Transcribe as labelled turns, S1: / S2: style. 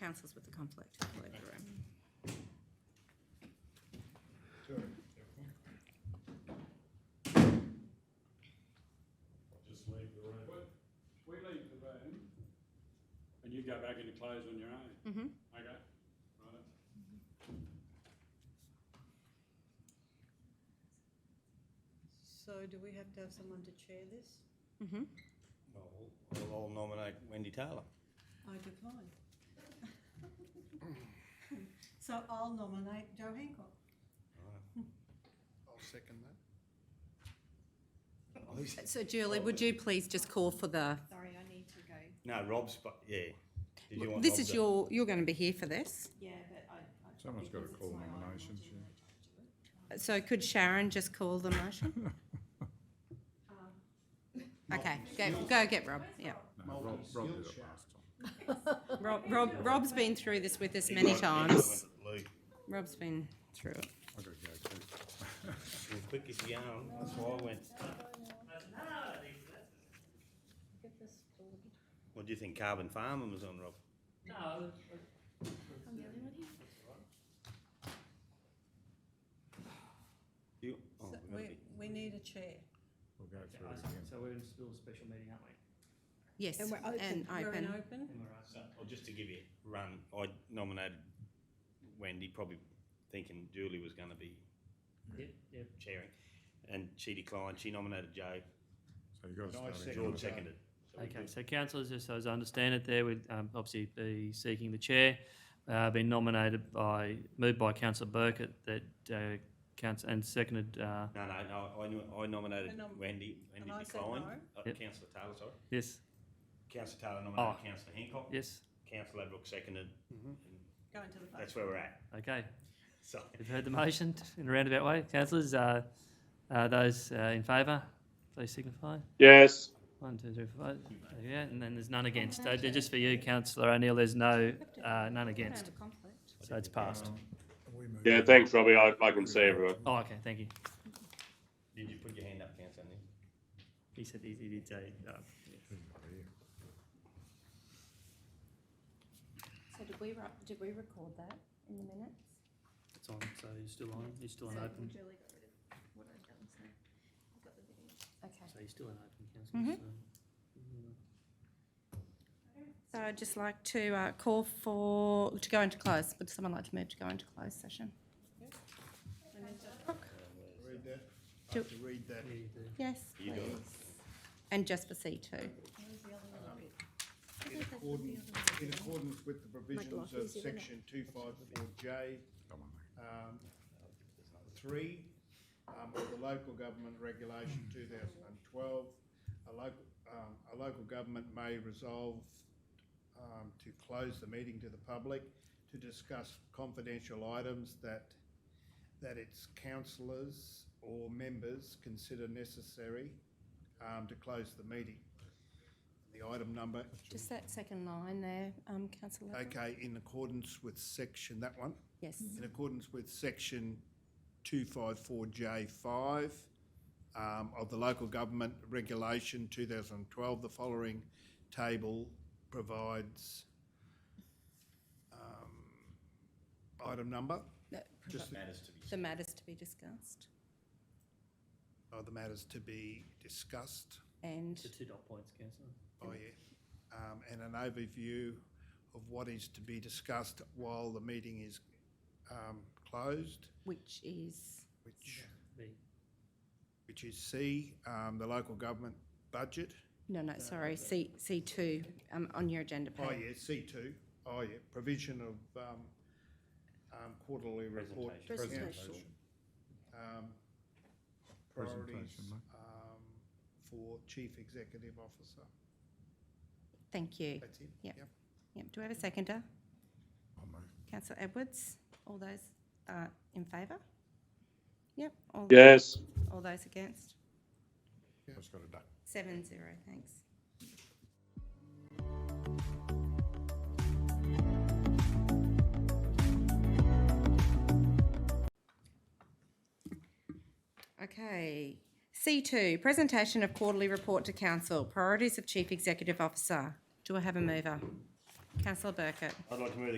S1: councils with a conflict all over the room.
S2: Just leave the room.
S3: We leave the room. And you go back into close on your own,
S1: Mm-hmm.
S3: okay? Right.
S4: So do we have to have someone to chair this?
S1: Mm-hmm.
S5: Well, we'll all nominate Wendy Taylor.
S4: I decline. So I'll nominate Joe Hancock.
S6: I'll second that.
S1: So Julie, would you please just call for the,
S4: Sorry, I need to go.
S5: No, Rob's, but, yeah. Did you want
S1: this
S5: Rob
S1: is
S5: to-
S1: your, you're going to be here for this.
S4: Yeah, but I. I-
S7: Someone's gotta
S4: because it's
S7: call
S4: my item, I'll
S7: nominations,
S4: do
S7: yeah.
S4: it, I'll do it.
S1: So could Sharon just call the motion?
S4: Um,
S1: Okay, go, go get Rob, yeah.
S7: No, Rob, Rob did it
S6: Multi-skill
S7: last time.
S1: Rob, Rob, Rob's been through this with us many times.
S5: Lee,
S1: Rob's been through it.
S7: I gotta go too.
S5: you're quick as you are. That's why I went.
S4: Get this forward.
S5: What do you think Carbon Farming was on, Rob?
S8: No. I'm the only one here.
S5: You? oh,
S4: So
S5: we're gonna
S4: We,
S5: be-
S4: we need a chair.
S7: We'll go
S8: Okay,
S7: through it
S8: I see.
S7: again.
S8: So we're in still a special meeting, aren't we?
S1: Yes,
S4: And we're open.
S1: and
S4: We're in
S1: open.
S4: open.
S8: And we're out.
S5: So, well, just to give you a run, I nominated Wendy, probably thinking Julie was gonna be
S8: Yep, yep.
S5: chairing. And she declined, she nominated Joe,
S7: So you gotta
S6: Can I
S7: start again.
S6: second
S5: George seconded. So we
S8: Okay,
S5: good.
S8: so councillors, just as I understand it there, would um, obviously be seeking the chair, uh, been nominated by, moved by councillor Burkett that, uh, council, and seconded, uh,
S5: No, no, no, I knew, I nominated
S4: And, um,
S5: Wendy, Wendy
S4: I said
S5: declined.
S4: no.
S5: Uh,
S8: Yep.
S5: councillor Taylor, sorry.
S8: yes,
S5: Councillor Taylor
S8: Oh.
S5: nominated councillor Hancock,
S8: yes,
S5: councillor Ladbrook seconded.
S6: Mm-hmm.
S5: and
S4: Go into the vote.
S5: That's where we're at,
S8: okay.
S5: so.
S8: You've heard the motion in a roundabout way. Councillors, uh, uh, those uh, in favour, please signify.
S3: Yes.
S8: One, two, three, four, five. Yeah, and then there's none against. Uh, they're just for you, councillor O'Neill, there's no, uh, none against. So it's passed.
S7: We move
S3: Yeah,
S7: on.
S3: thanks, Robbie. I, I can see everyone.
S8: Oh, okay, thank you.
S5: Did you put your hand up, councillor Neil?
S8: He said he, he did say, uh,
S1: So did we, did we record that in the minutes?
S8: it's on, so he's still on, he's still on open.
S1: Okay.
S8: So he's still on open,
S1: Mm-hmm.
S8: councillors.
S1: So I'd just like to uh, call for, to go into close. Would someone like to move to go into closed session?
S6: Read that. I
S1: Do-
S6: have to read that.
S8: So, yeah, you do.
S1: Yes,
S5: You
S1: please.
S5: do it.
S1: And just for C2.
S4: Where's the other one?
S6: In accordance, in accordance with the provisions of section two five four J,
S7: Come on, mate.
S6: um, three, um, of the local government regulation two thousand and twelve. A local, um, a local government may resolve, um, to close the meeting to the public to discuss confidential items that, that its councillors or members consider necessary, um, to close the meeting. The item number
S1: Just that second line there, um, councillor. Lovell.
S6: Okay, in accordance with section, that one,
S1: Yes.
S6: in accordance with section two five four J five um, of the local government regulation two thousand and twelve, the following table provides um, item number
S1: That-
S6: Just-
S5: Matters to be.
S1: The matters to be discussed
S6: of the matters to be discussed.
S1: and,
S8: The two dot points, councillor.
S6: Oh, yeah. Um, and an overview of what is to be discussed while the meeting is um, closed,
S1: which is,
S6: which
S8: B.
S6: which is C, um, the local government budget.
S1: no, no, sorry, C, C2, um, on your agenda
S6: Oh,
S1: page.
S6: yeah, C two. Oh, yeah, provision of, um, um, quarterly report. to
S1: Presentation.
S6: council. Um, priorities,
S7: Presentation, mate.
S6: um, for chief executive officer.
S1: Thank you.
S6: That's it?
S1: Yep. Yep. Do we have a seconder?
S6: Oh,
S7: I'll move.
S1: Councillor Edwards, all those, uh, in favour? Yep, all,
S3: Yes.
S1: all those against?
S7: I just gotta duck.
S1: Seven zero, thanks. Okay, C two, presentation of quarterly report to council, priorities of chief executive officer. Do I have a mover? Councillor Burkett.
S5: I'd like to move the